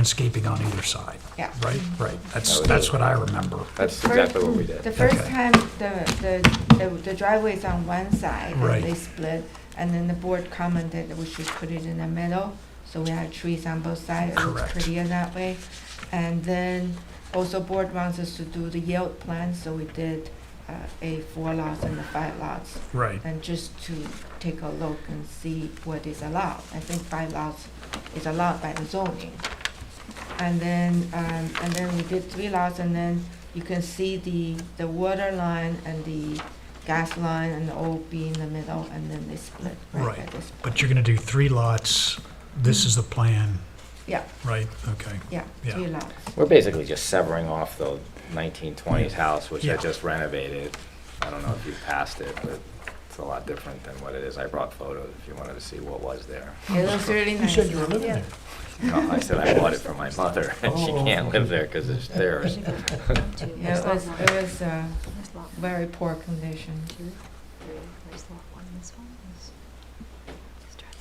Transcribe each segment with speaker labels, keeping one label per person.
Speaker 1: landscaping on either side.
Speaker 2: Yeah.
Speaker 1: Right, right. That's,
Speaker 3: That was
Speaker 1: that's
Speaker 3: it.
Speaker 1: what I remember.
Speaker 3: That's
Speaker 2: Fir-
Speaker 3: exactly what we did.
Speaker 2: The first
Speaker 1: Okay.
Speaker 2: time, the, the, the- the driveway is on one side,
Speaker 1: Right.
Speaker 2: and they split, and then the board commented that we should put it in the middle, so we had trees on both sides, it looks
Speaker 1: Correct.
Speaker 2: prettier that way. And then, also board wants us to do the yield plan, so we did, uh, a four lots and a five lots,
Speaker 1: Right.
Speaker 2: and just to take a look and see what is allowed. I think five lots is allowed by the zoning. And then, um, and then we did three lots, and then you can see the, the water line and the gas line and the old B in the middle, and then they split right
Speaker 1: Right,
Speaker 2: at this.
Speaker 1: But you're gonna do three lots. This is the plan,
Speaker 2: Yeah,
Speaker 1: right? Okay.
Speaker 2: yeah,
Speaker 1: Yeah.
Speaker 2: three lots.
Speaker 3: We're basically just severing off the 1920s house, which
Speaker 1: Yeah.
Speaker 3: I just renovated. I don't know if you passed it, but it's a lot different than what it is. I brought photos if you wanted to see what was there.
Speaker 2: It looks really
Speaker 1: You
Speaker 2: nice.
Speaker 1: said you were living
Speaker 2: Yeah.
Speaker 1: there.
Speaker 3: No, I said I bought it for my mother, and she
Speaker 1: Oh.
Speaker 3: can't live there because it's theirs.
Speaker 2: Yeah, it was, it was, uh,
Speaker 4: There's lot one,
Speaker 2: very poor condition.
Speaker 4: two, three, there's lot one, this one is. just trying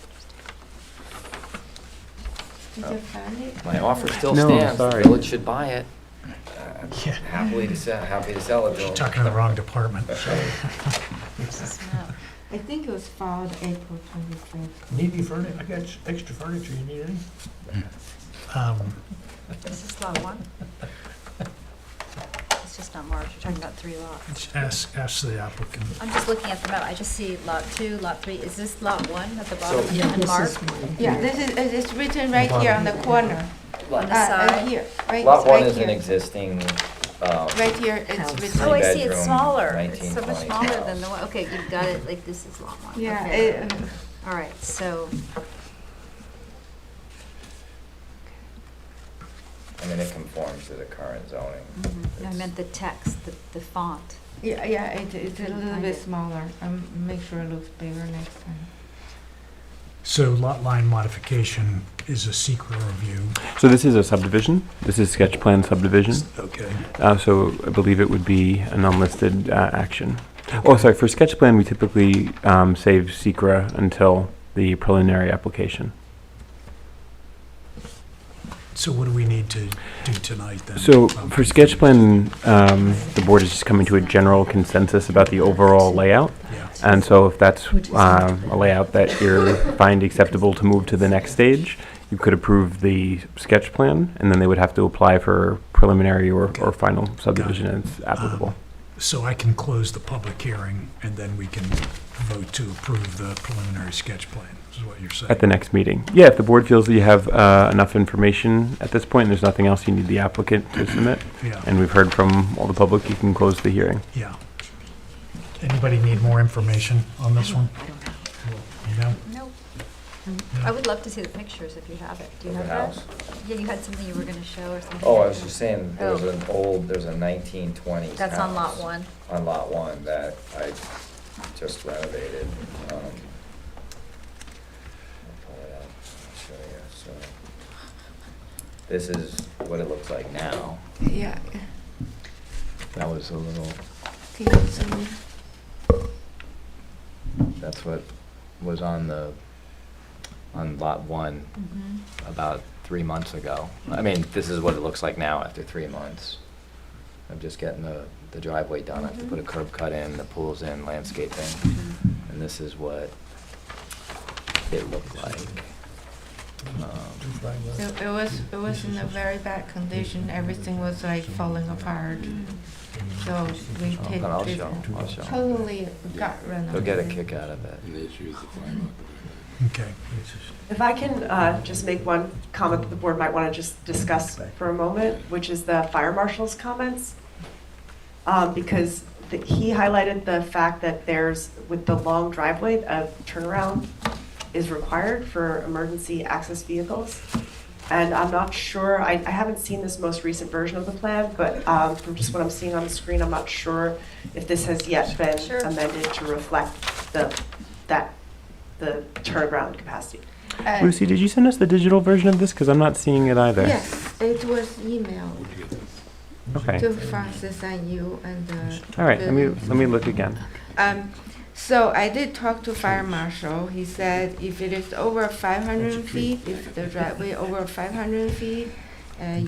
Speaker 4: to understand.
Speaker 2: Did you find it?
Speaker 3: My offer still
Speaker 5: No,
Speaker 3: stands. The
Speaker 5: sorry.
Speaker 3: village should buy it. I'm
Speaker 1: Yeah.
Speaker 3: Happily to sell, happy to sell it.
Speaker 1: She's
Speaker 3: though.
Speaker 1: talking to the wrong department.
Speaker 4: There's this map.
Speaker 2: I think it was filed April twenty-fifth.
Speaker 6: Need any furniture? I got s- extra furniture. You need any?
Speaker 1: Um,
Speaker 4: This is lot one. It's just not marked, we're talking about three lots.
Speaker 1: Ask, ask the applicant.
Speaker 4: I'm just looking at the map, I just see lot two, lot three, is this lot one at the
Speaker 3: So-
Speaker 4: bottom unmarked
Speaker 2: Yeah, this is, it- it's written right here on the corner.
Speaker 4: on the
Speaker 2: Uh, Right
Speaker 4: side?
Speaker 2: here, right,
Speaker 3: Lot
Speaker 2: it's
Speaker 3: one
Speaker 2: right
Speaker 3: is an
Speaker 2: here.
Speaker 3: existing, um,
Speaker 2: Right here,
Speaker 7: House.
Speaker 2: it's
Speaker 4: Oh, I
Speaker 2: written,
Speaker 4: see, it's
Speaker 3: Three-bedroom,
Speaker 4: smaller, it's so much
Speaker 3: 1920s
Speaker 4: smaller than the
Speaker 3: house.
Speaker 4: one, okay, you've got it, like, this is lot one,
Speaker 2: yeah,
Speaker 4: okay.
Speaker 2: it-
Speaker 4: All right, so,
Speaker 3: I mean, it conforms to the current zoning.
Speaker 2: Mm-hmm.
Speaker 4: I
Speaker 3: It's-
Speaker 4: meant the text, the, the font.
Speaker 2: yeah, yeah, it, it's a
Speaker 4: Couldn't
Speaker 2: little
Speaker 4: find
Speaker 2: bit
Speaker 4: it.
Speaker 2: smaller, um, make sure it looks bigger next time.
Speaker 1: So lot line modification is a secret review.
Speaker 5: So this is a subdivision. This is sketch plan subdivision.
Speaker 1: Okay.
Speaker 5: Uh, so I believe it would be an unlisted uh, action. Oh, sorry. For sketch plan, we typically um, save secra until the preliminary application.
Speaker 1: So what do we need to do tonight then? Um,
Speaker 5: So for sketch plan, um, the board is just coming to a general consensus about the overall layout.
Speaker 1: Yeah,
Speaker 5: And so if that's um, a layout that you find acceptable to move to the next stage, you could approve the sketch plan, and then they would have to apply for preliminary or, or final subdivision as applicable.
Speaker 1: so I can close the public hearing and then we can vote to approve the preliminary sketch plan, is what you're saying?
Speaker 5: At the next meeting. Yeah, if the board feels that you have uh, enough information at this point, and there's nothing else you need the applicant to submit,
Speaker 1: Yeah,
Speaker 5: and we've heard from all the public, you can close the hearing.
Speaker 1: yeah. Anybody need more information on this one? You know?
Speaker 4: Nope.
Speaker 1: No.
Speaker 4: I would love to see the pictures if you have it. Do you
Speaker 3: Of the
Speaker 4: have that?
Speaker 3: house?
Speaker 4: Yeah, you had something you were gonna show or something.
Speaker 3: Oh, I was just saying, there was
Speaker 4: Oh.
Speaker 3: an old, there's a nineteen twenties
Speaker 4: That's on lot one.
Speaker 3: On lot one that I just renovated. um, I'll pull it out, I'll show you, so. This is what it looks like now.
Speaker 2: Yeah,
Speaker 3: That was a little,
Speaker 2: okay, so, mm-hmm.
Speaker 3: that's what was on the, on lot one
Speaker 4: Mhm.
Speaker 3: about three months ago. I mean, this is what it looks like now after three months. I'm just getting the, the driveway done, I have to put a curb cut in, the pool's in, landscaping,
Speaker 4: Mm-hmm.
Speaker 3: and this is what it looked like. Um,
Speaker 2: it it was, it was in a very bad condition, everything was like falling apart, so we take
Speaker 3: But Oh, I'll
Speaker 2: this
Speaker 3: show, I'll show.
Speaker 2: totally gut run.
Speaker 3: They'll get a kick out of it.
Speaker 1: Okay.
Speaker 7: If I can uh, just make one comment that the board might want to just discuss for a moment, which is the fire marshal's comments. Um, Because the- he highlighted the fact that there's, with the long driveway, a turnaround is required for emergency access vehicles. And I'm not sure, I I haven't seen this most recent version of the plan, but um, from just what I'm seeing on the screen, I'm not sure if this has yet been
Speaker 4: Sure.
Speaker 7: amended to reflect the, that, the turnaround capacity.
Speaker 2: Uh,
Speaker 5: Lucy, did you send us the digital version of this? Because I'm not seeing it either.
Speaker 2: Yes, it was emailed
Speaker 5: Okay.
Speaker 2: to Francis and you and the.
Speaker 5: All right, let me,
Speaker 2: building
Speaker 5: let me look again.
Speaker 2: Um, so I did talk to fire marshal. He said if it is over five hundred feet, if the driveway over five hundred feet, uh,